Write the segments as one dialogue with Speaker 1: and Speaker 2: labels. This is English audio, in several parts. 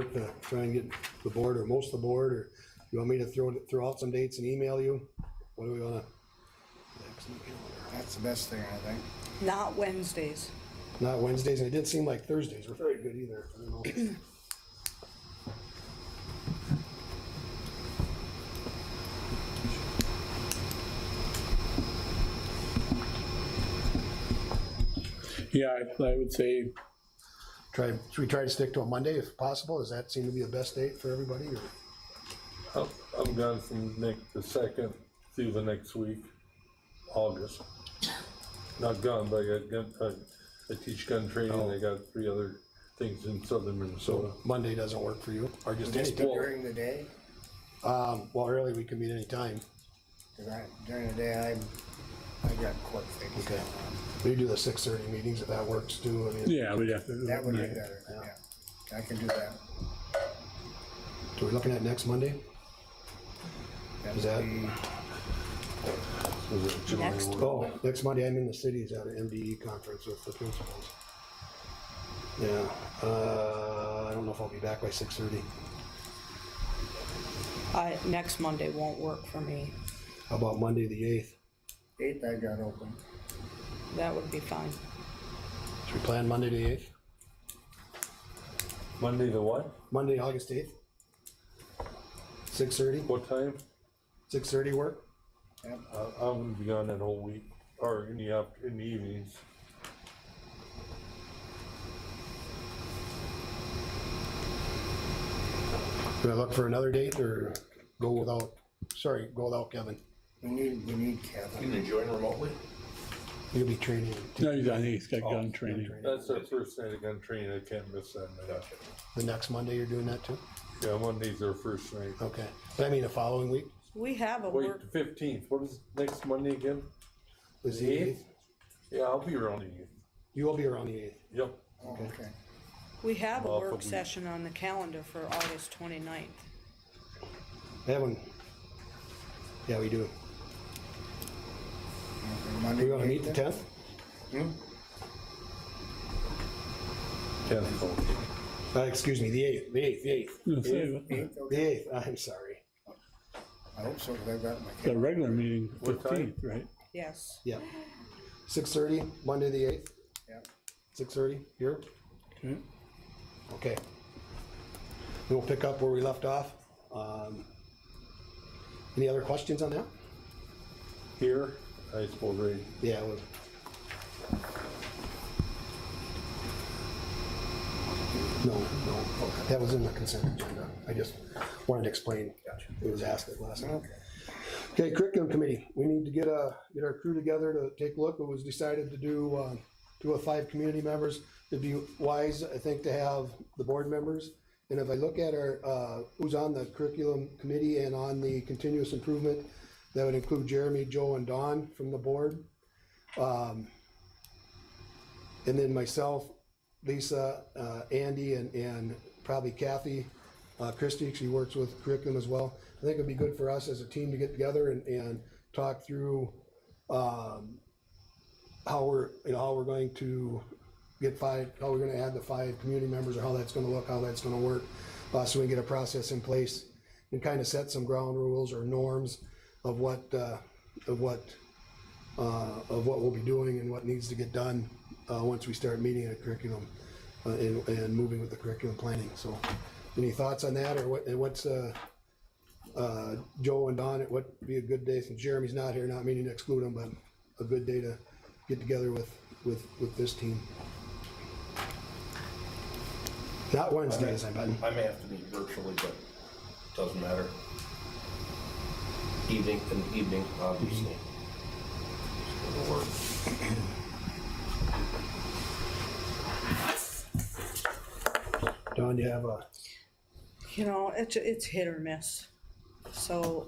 Speaker 1: work to try and get the board or most of the board, or you want me to throw, throw out some dates and email you? What do we wanna?
Speaker 2: That's the best thing, I think.
Speaker 3: Not Wednesdays.
Speaker 1: Not Wednesdays, and it didn't seem like Thursdays were very good either, I don't know.
Speaker 4: Yeah, I, I would say,
Speaker 1: Try, should we try to stick to a Monday if possible? Does that seem to be the best date for everybody, or?
Speaker 5: I'm, I'm gone from Nick the second through the next week, August. Not gone, but I got gun, I, I teach gun training, I got three other things in southern Minnesota.
Speaker 1: Monday doesn't work for you, or just any
Speaker 2: Just
Speaker 1: time?
Speaker 2: during the day,
Speaker 1: Um, well, early, we can meet any time.
Speaker 2: 'cause I, during the day, I, I got court things
Speaker 1: Okay.
Speaker 2: going on.
Speaker 1: We do the six thirty meetings if that works too, I mean,
Speaker 4: yeah, we'd have to.
Speaker 2: That would be better, yeah. I can do that.
Speaker 1: so we're looking at next Monday? Is that-
Speaker 2: That'd be,
Speaker 5: Was it July
Speaker 3: Next.
Speaker 5: one?
Speaker 1: Oh, next Monday, I'm in the cities at an MDE conference with the principals. Yeah, uh, I don't know if I'll be back by six thirty.
Speaker 3: I, next Monday won't work for me.
Speaker 1: How about Monday, the eighth?
Speaker 2: eighth I got open.
Speaker 3: That would be fine.
Speaker 1: Should we plan Monday, the eighth?
Speaker 5: Monday the what?
Speaker 1: Monday, August eighth? Six thirty?
Speaker 5: What time?
Speaker 1: Six thirty work?
Speaker 5: I, Uh, I'm gonna be gone that whole week, or in the after, in the evenings.
Speaker 1: Do I look for another date or go without, sorry, go without Kevin?
Speaker 2: We need, we need Kevin.
Speaker 6: can join remotely?
Speaker 1: He'll be training.
Speaker 4: No, he's, I think he's got gun training.
Speaker 5: That's the first night of gun training, I can't miss that night.
Speaker 1: The next Monday, you're doing that too?
Speaker 5: Yeah, Monday's our first night.
Speaker 1: Okay, but I mean the following week?
Speaker 3: We have a
Speaker 5: Wait,
Speaker 3: work,
Speaker 5: fifteenth, what is next Monday again?
Speaker 1: Is
Speaker 5: The
Speaker 1: the
Speaker 5: eighth?
Speaker 1: eighth?
Speaker 5: Yeah, I'll be around the eighth.
Speaker 1: You will be around the eighth.
Speaker 5: Yep.
Speaker 2: Oh, okay.
Speaker 3: we have a
Speaker 5: Well,
Speaker 3: work
Speaker 5: but we-
Speaker 3: session on the calendar for August 29th.
Speaker 1: That one. Yeah, we do.
Speaker 2: Okay,
Speaker 1: Do
Speaker 2: Monday.
Speaker 1: we wanna meet the tenth?
Speaker 5: Tenth.
Speaker 1: Uh, excuse me, the eighth, the eighth, the eighth,
Speaker 4: Let's say
Speaker 2: Eighth, okay.
Speaker 1: the eighth, I'm sorry.
Speaker 2: I hope so, 'cause I got my
Speaker 4: The
Speaker 2: kid.
Speaker 4: regular meeting,
Speaker 5: What time?
Speaker 4: fifteenth, right?
Speaker 3: Yes.
Speaker 1: Yeah. Six thirty, Monday the eighth,
Speaker 2: Yeah.
Speaker 1: six thirty, here,
Speaker 4: Okay.
Speaker 1: okay. Then We'll pick up where we left off. Um, Any other questions on that?
Speaker 5: Here, I suppose, right?
Speaker 1: Yeah, we'll- No, no, okay. that was in the consent agenda. I just wanted to explain. It was asked at last time. Okay, curriculum committee, we need to get a, get our crew together to take a look. It was decided to do, uh, two of five community members. It'd be wise, I think, to have the board members. And if I look at our, uh, who's on the curriculum committee and on the continuous improvement, that would include Jeremy, Joe, and Don from the board. Um, And then myself, Lisa, uh, Andy, and, and probably Kathy, uh, Christie, she works with curriculum as well. I think it'd be good for us as a team to get together and, and talk through, um, how we're, you know, how we're going to get five, how we're gonna add the five community members, or how that's gonna look, how that's gonna work. Uh, so we can get a process in place and kind of set some ground rules or norms of what, uh, of what uh, of what we'll be doing and what needs to get done uh, once we start meeting a curriculum uh, and, and moving with the curriculum planning. So, any thoughts on that, or what? And what's uh, uh, Joe and Don? What would be a good day since Jeremy's not here? Not meaning to exclude him, but a good day to get together with with with this team. Not Wednesdays, I bet.
Speaker 6: I may have to meet virtually, but doesn't matter. Evening and evening, obviously. It'll work.
Speaker 1: Don, you have a
Speaker 3: You know, it's, it's hit or miss. So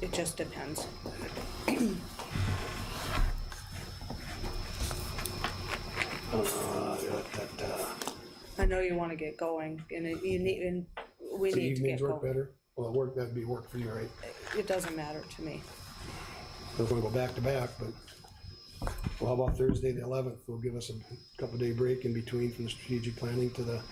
Speaker 3: it just depends.
Speaker 1: uh, that, uh,
Speaker 3: I know you want to get going and it- you need, and we
Speaker 1: so
Speaker 3: need to get
Speaker 1: evenings work
Speaker 3: going.
Speaker 1: better. Well, work that'd be work for you, right?
Speaker 3: It doesn't matter to me.
Speaker 1: We're gonna go back to back, but, well, how about Thursday, the eleventh, will give us a couple day break in between from the strategic planning to the